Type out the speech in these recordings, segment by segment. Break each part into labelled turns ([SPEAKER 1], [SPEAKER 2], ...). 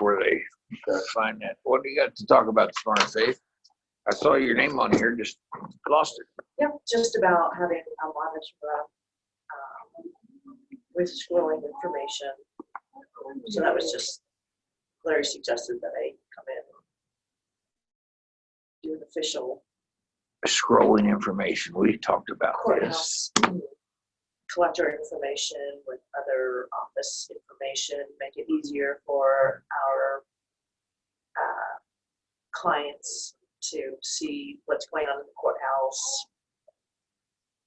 [SPEAKER 1] where they uh, find that. What do you got to talk about this morning, Faith? I saw your name on here, just lost it.
[SPEAKER 2] Yep, just about having a monitor um, with scrolling information. So that was just, Larry suggested that I come in. Do an official
[SPEAKER 1] Scrolling information, we talked about this.
[SPEAKER 2] courthouse, collector information with other office information, make it easier for our uh, clients to see what's going on in the courthouse.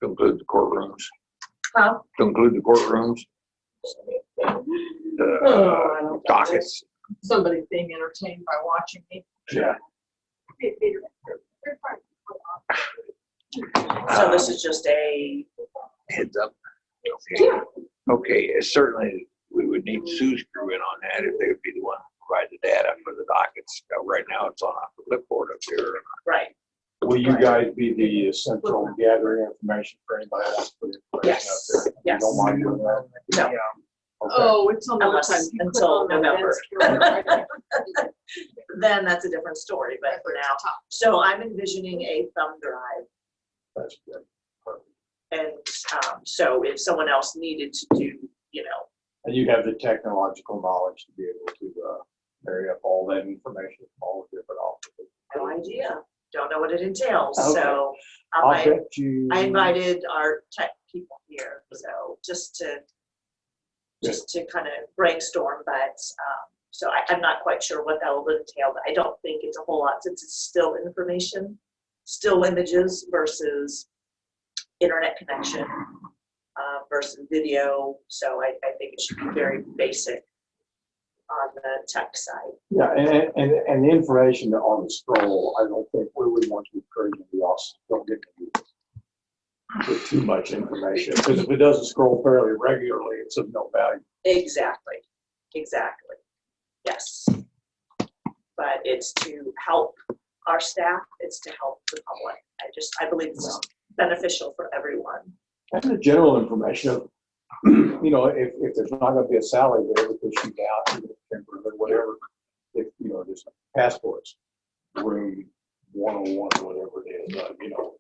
[SPEAKER 1] To include the courtrooms,
[SPEAKER 2] Huh?
[SPEAKER 1] to include the courtrooms,
[SPEAKER 3] Oh, I
[SPEAKER 1] the
[SPEAKER 3] don't got it.
[SPEAKER 1] dockets.
[SPEAKER 3] Somebody's being entertained by watching me.
[SPEAKER 1] Yeah.
[SPEAKER 2] So this is just a,
[SPEAKER 1] Heads up. Okay. Okay, it's certainly, we would need Sue's crew in on that if they would be the one to provide the data for the dockets. Uh, Right now, it's on a clipboard up here.
[SPEAKER 2] right,
[SPEAKER 4] Will you guys be the uh, central gathering information for anybody else? put information out
[SPEAKER 2] Yes,
[SPEAKER 4] there? You
[SPEAKER 2] yes.
[SPEAKER 4] don't mind doing that?
[SPEAKER 2] No.
[SPEAKER 4] Okay.
[SPEAKER 3] Oh, it's on the
[SPEAKER 2] Unless-
[SPEAKER 3] website. You click
[SPEAKER 2] until
[SPEAKER 3] on the
[SPEAKER 2] November.
[SPEAKER 3] events calendar.
[SPEAKER 2] then that's a different story, but for now. So I'm envisioning a thumb drive.
[SPEAKER 4] That's good.
[SPEAKER 2] And um, so if someone else needed to do, you know,
[SPEAKER 4] And you have the technological knowledge to be able to uh, marry up all that information, from all the different offices.
[SPEAKER 2] no idea, don't know what it entails,
[SPEAKER 4] Okay.
[SPEAKER 2] so. um,
[SPEAKER 4] I'll
[SPEAKER 2] I,
[SPEAKER 4] bet you.
[SPEAKER 2] I invited our tech people here, so just to, just to kind of brainstorm, but, um, so I, I'm not quite sure what that will entail, but I don't think it's a whole lot since it's still information, still images versus internet connection, uh, versus video, so I, I think it should be very basic on the tech side.
[SPEAKER 4] Yeah, and, and- and, and the information on the scroll, I don't think we would want to encourage the officers, don't get confused with too much information, because if it doesn't scroll fairly regularly, it's of no value.
[SPEAKER 2] Exactly, exactly. Yes. But it's to help our staff, it's to help the public. I just, I believe it's beneficial for everyone.
[SPEAKER 4] And the general information of, you know, if, if there's not gonna be a salary there, we push you down to the temporary or whatever. If, you know, just passports, room one oh one, whatever it is, uh, you know,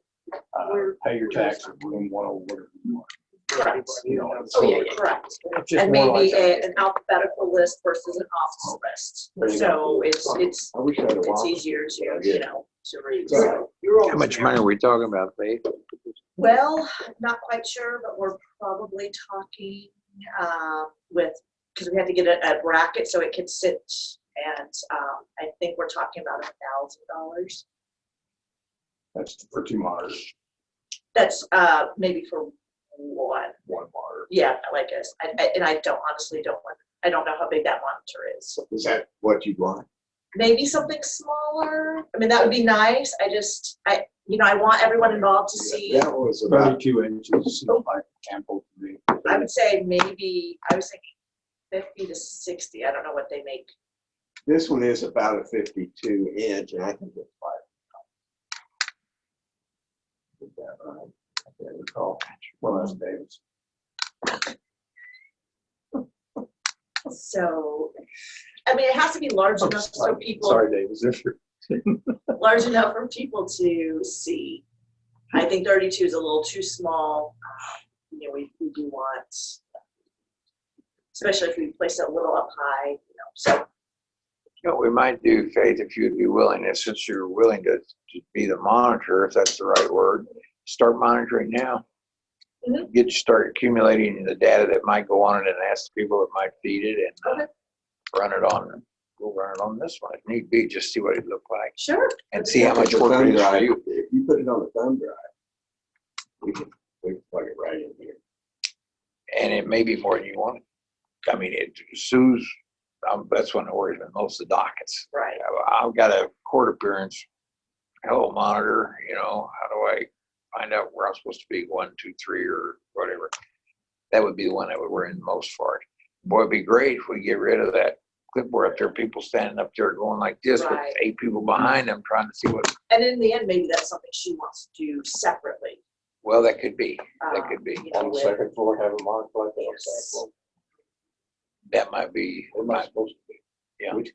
[SPEAKER 4] uh, pay your taxes, room one oh one.
[SPEAKER 2] Correct.
[SPEAKER 4] You know, and
[SPEAKER 2] Oh,
[SPEAKER 4] so
[SPEAKER 2] yeah, yeah,
[SPEAKER 4] it's
[SPEAKER 2] correct.
[SPEAKER 4] just
[SPEAKER 2] And
[SPEAKER 4] more like
[SPEAKER 2] maybe a-
[SPEAKER 4] that.
[SPEAKER 2] an alphabetical list versus an office list.
[SPEAKER 4] There you
[SPEAKER 2] So it's, it's,
[SPEAKER 4] I wish I had a
[SPEAKER 2] it's
[SPEAKER 4] wallet.
[SPEAKER 2] easier to,
[SPEAKER 4] Yeah.
[SPEAKER 2] you know, to read.
[SPEAKER 4] Sorry.
[SPEAKER 2] So-
[SPEAKER 1] How much money are we talking about, Faith?
[SPEAKER 2] Well, not quite sure, but we're probably talking um, with, because we had to get a a bracket so it could sit. And um, I think we're talking about a thousand dollars.
[SPEAKER 4] That's for two monitors,
[SPEAKER 2] That's uh, maybe for one,
[SPEAKER 4] one monitor.
[SPEAKER 2] yeah, like us. I- I- And I don't honestly don't want, I don't know how big that monitor is.
[SPEAKER 4] Is that what you want?
[SPEAKER 2] Maybe something smaller. I mean, that would be nice. I just, I, you know, I want everyone involved to see.
[SPEAKER 4] That was about two inches, so I sampled me.
[SPEAKER 2] I would say maybe, I was thinking fifty to sixty. I don't know what they make
[SPEAKER 4] This one is about a fifty-two inch, and I think it's five. Is that right? I can't recall. Oh, Well, that's Davis.
[SPEAKER 2] So, I mean, it has to be
[SPEAKER 1] Oh,
[SPEAKER 2] large enough for people,
[SPEAKER 4] Sorry, Davis, if you're-
[SPEAKER 2] large enough for people to see. I think thirty-two is a little too small. You know, we, we do want, especially if we place it a little up high, you know, so,
[SPEAKER 1] You know, we might do, Faith, if you'd be willing, and since you're willing to, to be the monitor, if that's the right word, start monitoring now.
[SPEAKER 2] Mhm.
[SPEAKER 1] Get, start accumulating the data that might go on it and ask the people that might feed it and uh, run it on, we'll run it on this one. If need be, just see what it looked like
[SPEAKER 2] sure.
[SPEAKER 1] and see how much work it is for you.
[SPEAKER 4] If you put it on a thumb drive, we can, we can plug it right in here.
[SPEAKER 1] And it may be more than you want. I mean, it, Sue's, um, that's one that worries me most, the dockets.
[SPEAKER 2] Right,
[SPEAKER 1] I've got a court appearance, hello monitor, you know, how do I find out where I'm supposed to be, one, two, three, or whatever? That would be the one that would worry the most for it. Boy, it'd be great if we get rid of that clipboard up there, people standing up there going like this with
[SPEAKER 2] Right.
[SPEAKER 1] eight people behind them trying to see what,
[SPEAKER 2] and in the end, maybe that's something she wants to do separately.
[SPEAKER 1] well, that could be,
[SPEAKER 2] um,
[SPEAKER 1] that could be.
[SPEAKER 2] you know,
[SPEAKER 4] On the
[SPEAKER 2] with-
[SPEAKER 4] second floor, have a monitor like that on the
[SPEAKER 2] Yes.
[SPEAKER 4] second floor.
[SPEAKER 1] That might be,
[SPEAKER 4] What am I supposed to do?
[SPEAKER 1] Yeah.
[SPEAKER 4] Which